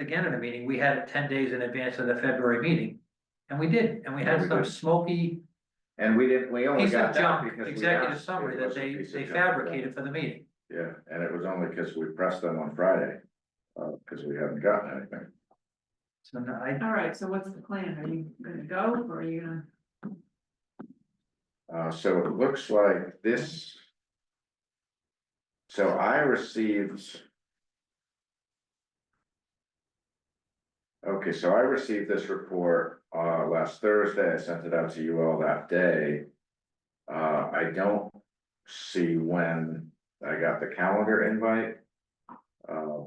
again in a meeting, we had it ten days in advance of the February meeting. And we did, and we Yeah, had we some did. smoky And we didn't, we only piece got of that junk, because we executive asked. summary It that was a they, piece of they junk. fabricated for the meeting. Yeah, and it was only because we pressed them on Friday, uh, because we haven't gotten anything. So no, I, All right, so what's the plan? Are you gonna go or are you gonna? Uh, so it looks like this. So I received. Okay, so I received this report, uh, last Thursday. I sent it out to you all that day. Uh, I don't see when I got the calendar invite. Uh,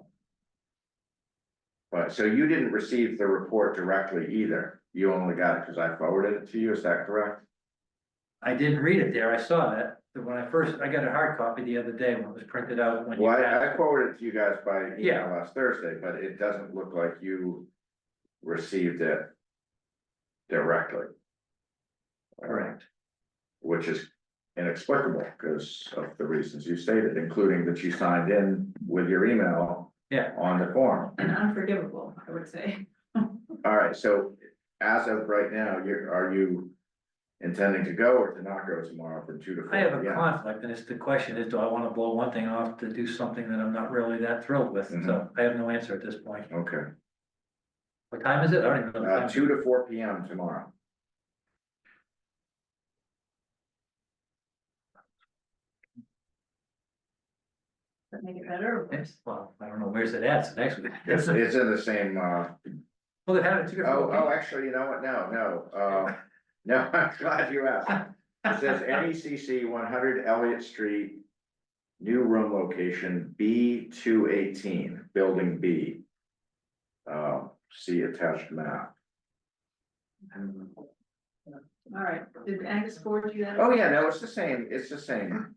But, so you didn't receive the report directly either. You only got it because I forwarded it to you, is that correct? I didn't read it there, I saw that, but when I first, I got a hard copy the other day when it was printed out. when you Well, I I asked. forwarded it to you guys by email Yeah. last Thursday, but it doesn't look like you received it directly. Uh, Correct, Which is inexplicable because of the reasons you stated, including that you signed in with your email Yeah. on the form. And unforgivable, I would say. All right, so as of right now, you're, are you intending to go or to not go tomorrow from two to four? I have a p.m.? conflict, and it's the question is, do I wanna blow one thing off to do something that I'm not really that thrilled with, so Mhm. I have no answer at this point. Okay, What time is it? I don't even know. the uh, time. two to four P M tomorrow. Does that make it better or worse? It's- Well, I don't know, where's it at, so next week. It's, it's in the same, uh, Well, they had it two Oh, oh, different. actually, you know what, no, no, uh, no, I'm glad you asked. It says NECC one hundred Elliott Street, new room location, B two eighteen, building B. Uh, see attached map. oh. All right, did Angus forward you that? Oh, yeah, no, it's the same, it's the same.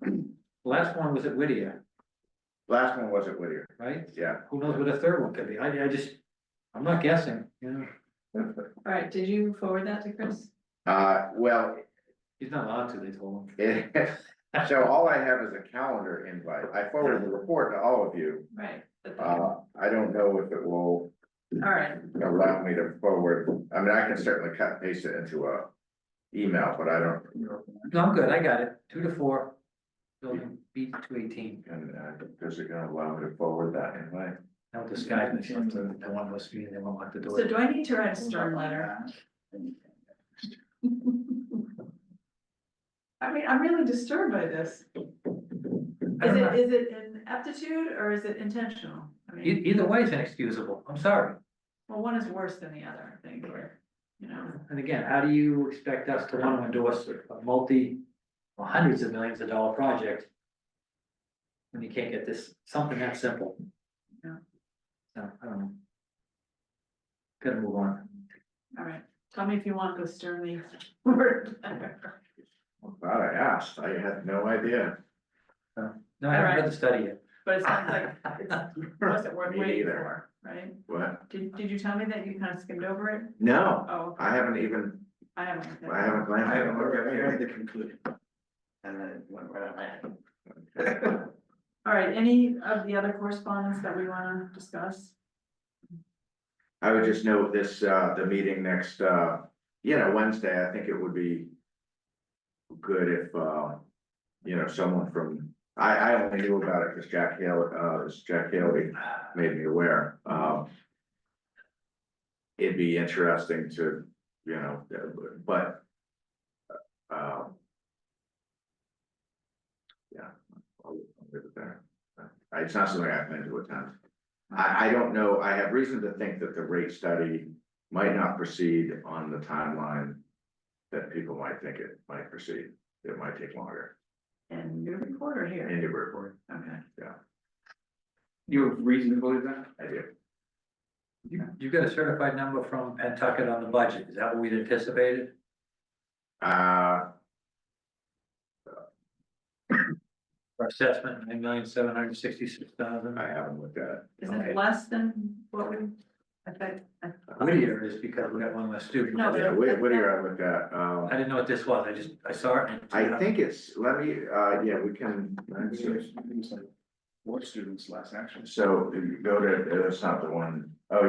Last one was at Whittier, Last one was at Whittier, right? yeah. Who knows what a third one could be? I, I just, I'm not guessing, you know, All right, did you forward that to Chris? Uh, well, he's not allowed to, they told him. it, so all I have is a calendar invite. I forwarded the report to all of you. Right. but- All Um, Uh, I don't know if it will right, allow me to forward, I mean, I can certainly cut and paste it into a email, but I don't, No, I'm good, I got it, two to four, building B two eighteen, and, uh, does it gonna allow me to forward that anyway? now the sky, the the one was me, and they won't let the so door. do I need to write a stern letter? I mean, I'm really disturbed by this. I Is don't it, know. is it an aptitude or is it intentional? I E- mean, Either way is inexcusable, I'm sorry. well, one is worse than the other, I think, or, you know. And again, how do you expect us to want to endorse a multi, well, hundreds of millions of dollar project? When you can't get this, something that simple? Yeah. So, I don't know. Gotta move on. All right, tell me if you want to sternly word. I'm Glad oh, I asked, I had no idea. No, I haven't read the study yet. But it sounds like it wasn't worth Me waiting neither. for, right? What? Did, did you tell me that you kind of skimmed over it? No, Oh, okay. I haven't even, I haven't. I haven't glanced. I haven't looked at it, I read at it. the conclusion. And then it went right out my head. All right, any of the other correspondence that we wanna discuss? I would just note this, uh, the meeting next, uh, you know, Wednesday, I think it would be good if, uh, you know, someone from, I, I only knew about it because Jack Haley, uh, it's Jack Haley made me aware, um. It'd be interesting to, you know, but. uh, Yeah, I'll I'll leave it there. Uh, It's not something I plan to attend. I, I don't know, I have reason to think that the rate study might not proceed on the timeline. That people might think it might proceed, it might take longer, And your reporter here, in Newburyport, okay. You have reason to believe that? I do, You, you got a certified number from Pentucket on the budget, is that what we'd anticipated? uh, Our assessment, nine million, seven hundred and sixty-six thousand. I haven't looked at it. Is Okay. it less than what we, I think, I- Whittier is because we got one less student. No, Yeah, but- Whit- Whittier I looked at, um, I didn't know what this was, I just, I saw it. and- I think it's, let me, uh, yeah, we can, It's like, What students last action? so if you go to, it's uh, not the one